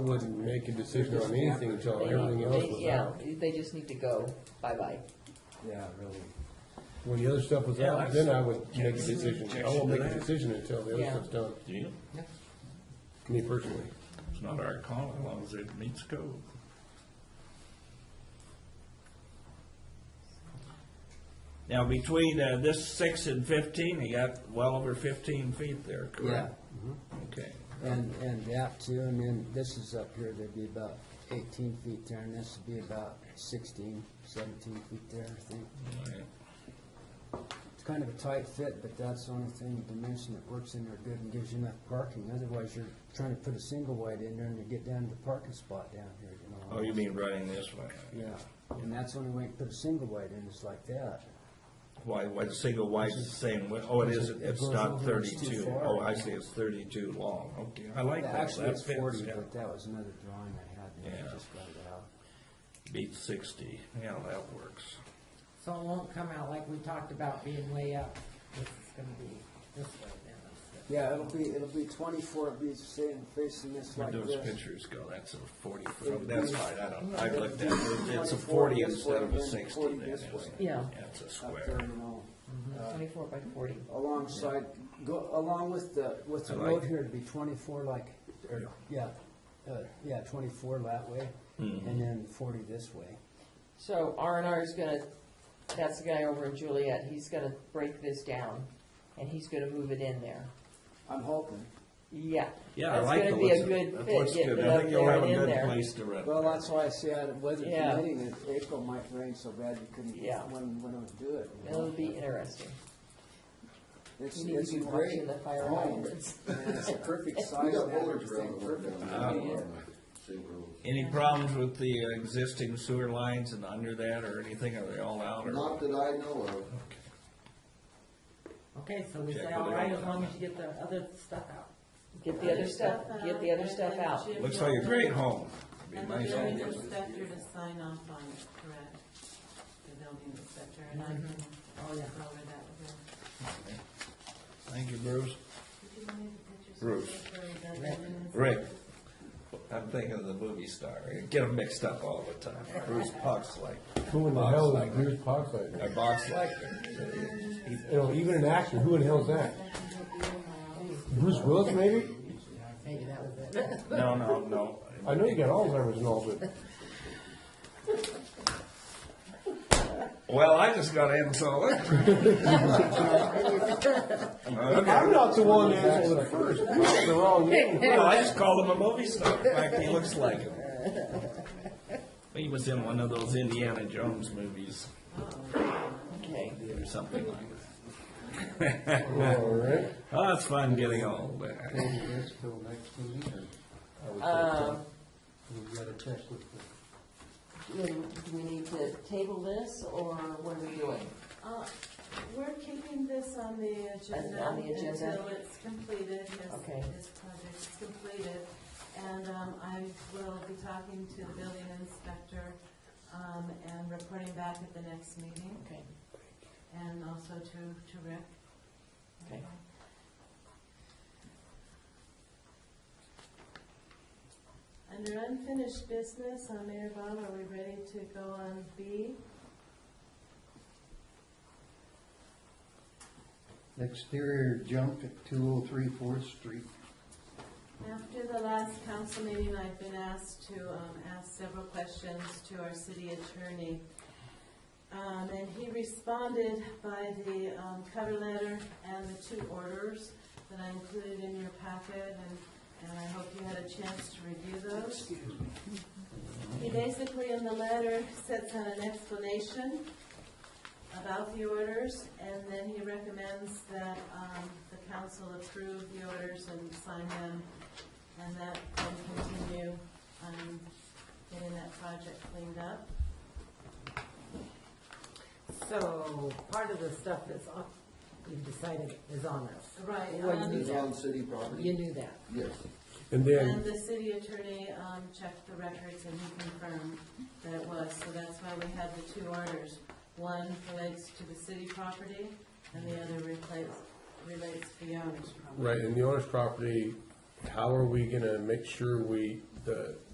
wouldn't make a decision on anything until everything else was Yeah, out. they just need to go, bye-bye. Yeah, really. When the other stuff was Yeah, out, I- then I would make a decision. I won't make a decision until the other Yeah. stuff's done, Yeah, me personally. it's not our call, as long as it meets code. Now, between uh, this six and fifteen, you got well over fifteen feet there, Yeah, correct? Okay. and, and that too, and then this is up here, there'd be about eighteen feet there, and this would be about sixteen, seventeen feet there, I think. It's kind of a tight fit, but that's the only thing, dimension that works in there good and gives you enough parking. Otherwise, you're trying to put a single wide in there and you get down to the parking spot down here, you know. Oh, you mean running this way? Yeah, and that's the only way you can put a single wide in, is like that. Why, why, the single wide's the same, width? oh, it isn't, it's goes not over, it's too thirty-two. far. Oh, I see, it's thirty-two long, okay. I like that. Actually, That it's fits, forty, yeah. but that was another drawing I had, and Yeah. I just got it out. Beat sixty, yeah, that works. So it won't come out like we talked about being way up. This is gonna be this way then. instead. Yeah, it'll be, it'll be twenty-four, it'll be saying facing this Where'd like those this. pictures go? That's a forty foot, that's fine, I don't, I looked at it, it's 24 a forty this instead way, of a then sixty. 40 That this is- way. Yeah. That's a Up there, square. you know, Uh, Twenty-four by forty. alongside, go, along with the, with the I road like- here, it'd be twenty-four like, or, yeah, uh, yeah, twenty-four that way, Hmm. and then forty this way. So R and R is gonna, that's the guy over in Juliet, he's gonna break this down, and he's gonna move it in there. I'm hoping. Yeah. Yeah, I like the That's gonna be a looks. good That fit, looks getting good. it I up think you'll there have and a in good there. place to rent. Well, there. that's why I say I, weather Yeah. permitting, it April might rain so bad you couldn't, Yeah. when, when it would do it. you know? It'll be interesting. It's, You need it's to a be watching great the fire home, hydrants. and it's a perfect We size got and boulders around everything, the work perfect. down Uh, there. Same rules. Any problems with the existing sewer lines and under that or anything? Are they all out or? Not that I know of. Okay, so we Check say with all the right other as long one. as you get the other stuff out. Get the other stuff, get the other stuff out. Looks like a great home. Be And the nice building home. inspector to sign off on it, correct? The building inspector, and I Mm-hmm. can Oh, yeah. go over that with her. Thank you, Bruce. Bruce. Rick. Rick. I'm thinking of the movie star. I Get them mixed up all the time. Bruce Boxlight. Who in the hell is Bruce Parkside? Or Boxlight. You know, even an actor, who in the hell is that? Bruce Willis, maybe? Maybe that was it. No, no, no. I know you got Alzheimer's and all, but Well, I just got insulted. Okay. I'm not the one that answered it first. It's the wrong name. Well, I just called him a movie star. In fact, he looks like him. He was in one of those Indiana Jones movies Okay. or something like that. All right. Oh, it's fun getting old. Um, Do do we need to table this, or what are we doing? Uh, We're keeping this on the agenda. On the agenda? Until it's completed, this, Okay. this project is completed. And um, I will be talking to the building inspector um, and reporting back at the next meeting, Okay, and also to, to Rick. okay. Under unfinished business, uh, Mayor Bob, are we ready to go on B? Exterior junk at two oh three Fourth Street. After the last council meeting, I've been asked to um, ask several questions to our city attorney. Um, And he responded by the um, cover letter and the two orders that I included in your packet, and, and I hope you had a chance to review those. He basically, in the letter, sets out an explanation about the orders, and then he recommends that um, the council approve the orders and sign them, and that can continue um, getting that project cleaned up. So part of the stuff that's on, you've decided is on us. Right, Oh, Well, you um, knew It's on that. city property, You knew that. yes. And then, And the city attorney um, checked the records and he confirmed that it was, so that's why we have the two orders. One relates to the city property, and the other relates, relates to the owner's property. right, in the owner's property, how are we gonna make sure we the